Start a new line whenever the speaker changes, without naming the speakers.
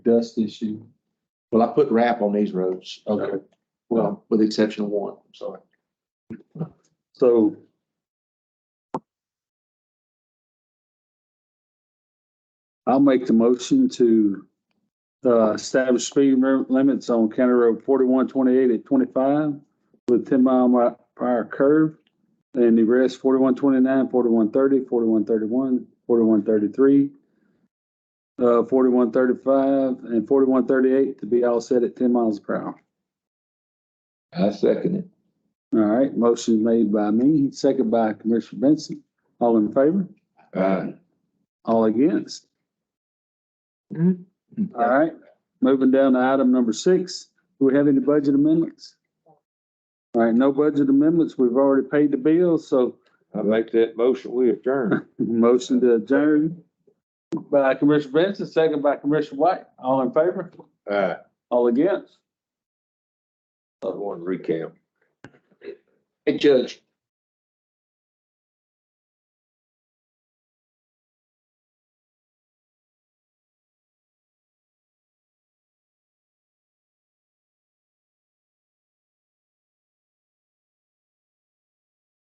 dust issue.
Well, I put wrap on these roads.
Okay.
Well, with the exception of one, I'm sorry.
So. I'll make the motion to uh, establish speed lim- limits on County Road forty-one twenty-eight at twenty-five with ten mile mi- per hour curve. And the rest 41 29, 41 30, 41 31, 41 33, uh, 41 35, and forty-one thirty-eight to be all set at ten miles per hour.
I second it.
All right, motion made by me, second by Commissioner Benson. All in favor?
Aye.
All against? All right, moving down to item number six. Do we have any budget amendments? All right, no budget amendments. We've already paid the bills, so
I make that motion, we adjourn.
motion to adjourn by Commissioner Benson, second by Commissioner White. All in favor?
Aye.
All against?
Other one recap. Hey, Judge,